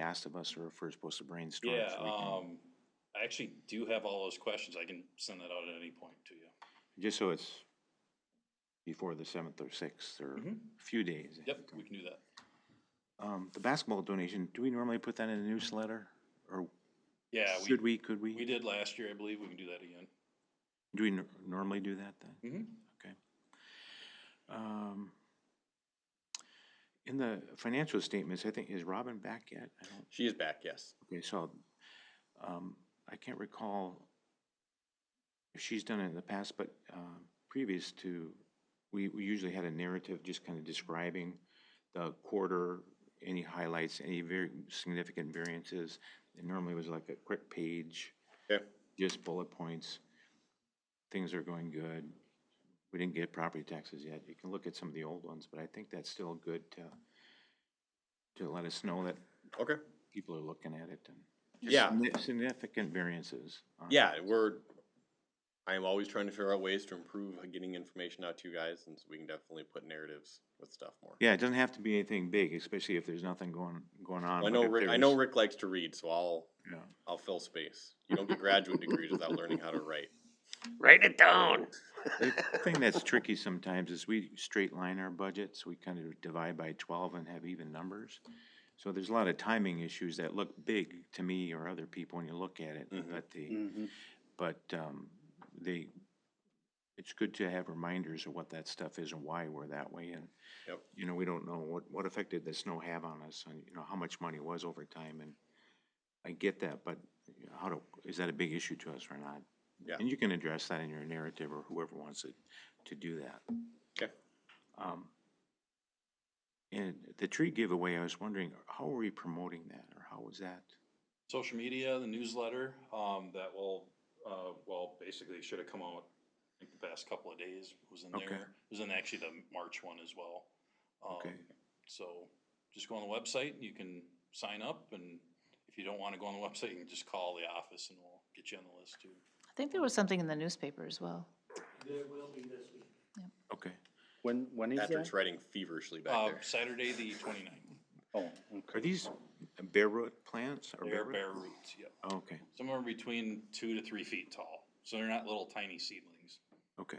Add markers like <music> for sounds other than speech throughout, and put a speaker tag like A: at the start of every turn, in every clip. A: asked of us or if we're supposed to brainstorm.
B: Yeah,
A: so we can-
B: um, I actually do have all those questions. I can send that out at any point to you.
A: Just so it's before the seventh or sixth or a few days. ahead
B: Mm-hmm. Yep,
A: of time.
B: we can do that.
A: Um, the basketball donation, do we normally put that in a newsletter? Or
B: Yeah, we,
A: should we, could
B: we
A: we?
B: did last year, I believe. We can do that again.
A: Do we nor- normally do that then?
B: Mm-hmm.
A: Okay. Um, In the financial statements, I think, is Robin back yet? I don't,
C: She is back, yes.
A: okay, so, um, I can't recall if she's done it in the past, but, um, previous to, we, we usually had a narrative just kind of describing the quarter, any highlights, any very significant variances. And normally it was like a quick page
C: Okay.
A: just bullet points. Things are going good. We didn't get property taxes yet. You can look at some of the old ones, but I think that's still good to, to let us know that
C: Okay.
A: people are looking at it and.
C: Yeah.
A: Signi- Significant variances. on it.
C: Yeah, we're, I am always trying to figure out ways to improve getting information out to you guys, and so we can definitely put narratives with stuff more.
A: Yeah, it doesn't have to be anything big, especially if there's nothing going, going on.
C: I
A: but
C: know
A: if
C: Rick,
A: there
C: I know
A: is-
C: Rick likes to read, so I'll,
A: yeah.
C: I'll fill space. You don't get graduate degrees without learning how to write.
D: Write it down.
A: The thing that's tricky sometimes is we straight line our budgets, we kind of divide by twelve and have even numbers. So there's a lot of timing issues that look big to me or other people when you look at it, but the, but, um, they, it's good to have reminders of what that stuff is and why we're that way and,
C: Yep.
A: you know, we don't know what, what effect did the snow have on us and, you know, how much money was over time and I get that, but you know, how to, is that a big issue to us or not?
C: Yeah.
A: And you can address that in your narrative or whoever wants it to do that.
C: Okay.
A: Um, and the tree giveaway, I was wondering, how are we promoting that or how was that?
B: Social media, the newsletter, um, that will, uh, well, basically should have come out, I think the past couple of days was in
A: Okay.
B: there. It was in actually the March one as well. Um,
A: Okay.
B: So just go on the website, and you can sign up and if you don't want to go on the <laughs> website, you can just call the office and we'll get you on the list too.
E: I think there was something in the newspaper as well.
A: Okay.
D: When, when is
C: Patrick's
D: that?
C: writing feverishly back
B: Uh,
C: there.
B: Saturday, the twenty-ninth,
D: Oh,
A: Are
D: okay.
A: these bare root plants or
B: they're
A: bare root?
B: bare roots, yep.
A: Oh, Okay,
B: Somewhere between two to three feet tall, so they're not little tiny seedlings.
A: okay.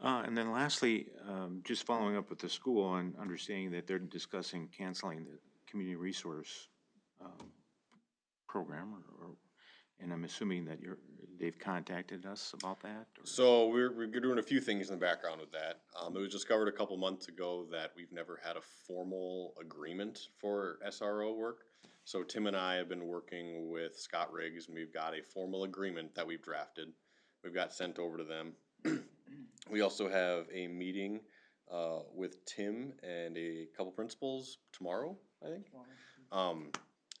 A: Uh, and then lastly, um, just following up with the school and understanding that they're discussing canceling the community resource, um, program or, or, and I'm assuming that you're, they've contacted us about that? or-
C: So we're, we're doing a few things in the background with that. Um, it was discovered a couple months ago that we've never had a formal agreement for SRO work. So Tim and I have been working with Scott Riggs and we've got a formal agreement that we've drafted. We've got sent over to them. <clears throat> We also have a meeting, uh, with Tim and a couple principals tomorrow, I think. Um,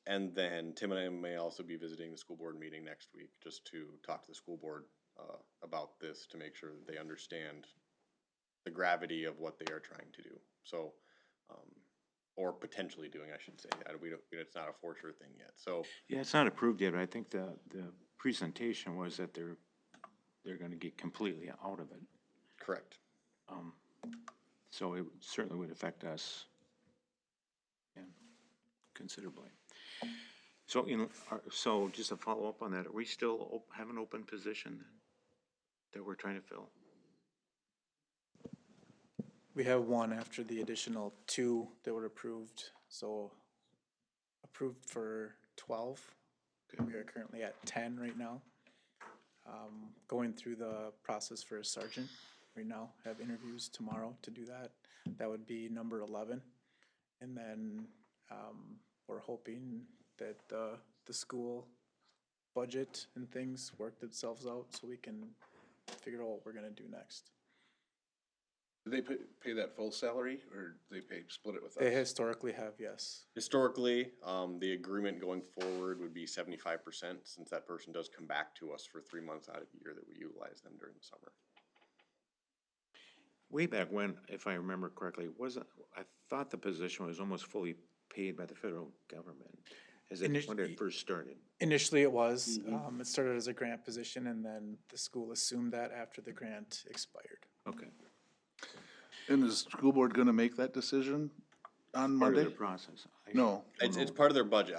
C: and then Tim and I may also be visiting the school board meeting next week, just to talk to the school board uh, about this to make sure that they understand the gravity of what they are trying to do. So, um, or potentially doing, I should say. I, we don't, it's not a for sure thing yet. So,
A: Yeah, it's not approved yet, but I think the, the presentation was that they're, they're gonna get completely out of it.
C: correct.
A: Um, So it certainly would affect us yeah, considerably. So in, are- so just a follow-up on that, are we still op- have an open position then that we're trying to fill?
F: We have one after the additional two that were approved, so approved for twelve. We are currently at ten right now. Um, going through the process for a sergeant right now, have interviews tomorrow to do that. That would be number eleven. And then, um, we're hoping that the, the school budget and things work themselves out so we can figure out what we're gonna do next.
G: Do they pay, pay that full salary or do they pay, split it with us?
F: They historically have, yes.
C: Historically, um, the agreement going forward would be 75% since that person does come back to us for three months out of the year that we utilize them during the summer.
A: Way back when, if I remember correctly, wasn't, I thought the position was almost fully paid by the federal government as it, when it
F: Initially-
A: first started.
F: Initially, it was. Um, it started as a grant position, and then the school assumed that after the grant expired.
A: Okay.
G: And is the school board gonna make that decision on
A: Part of
G: Monday?
A: the process.
G: No.
C: It's, it's part of their budget.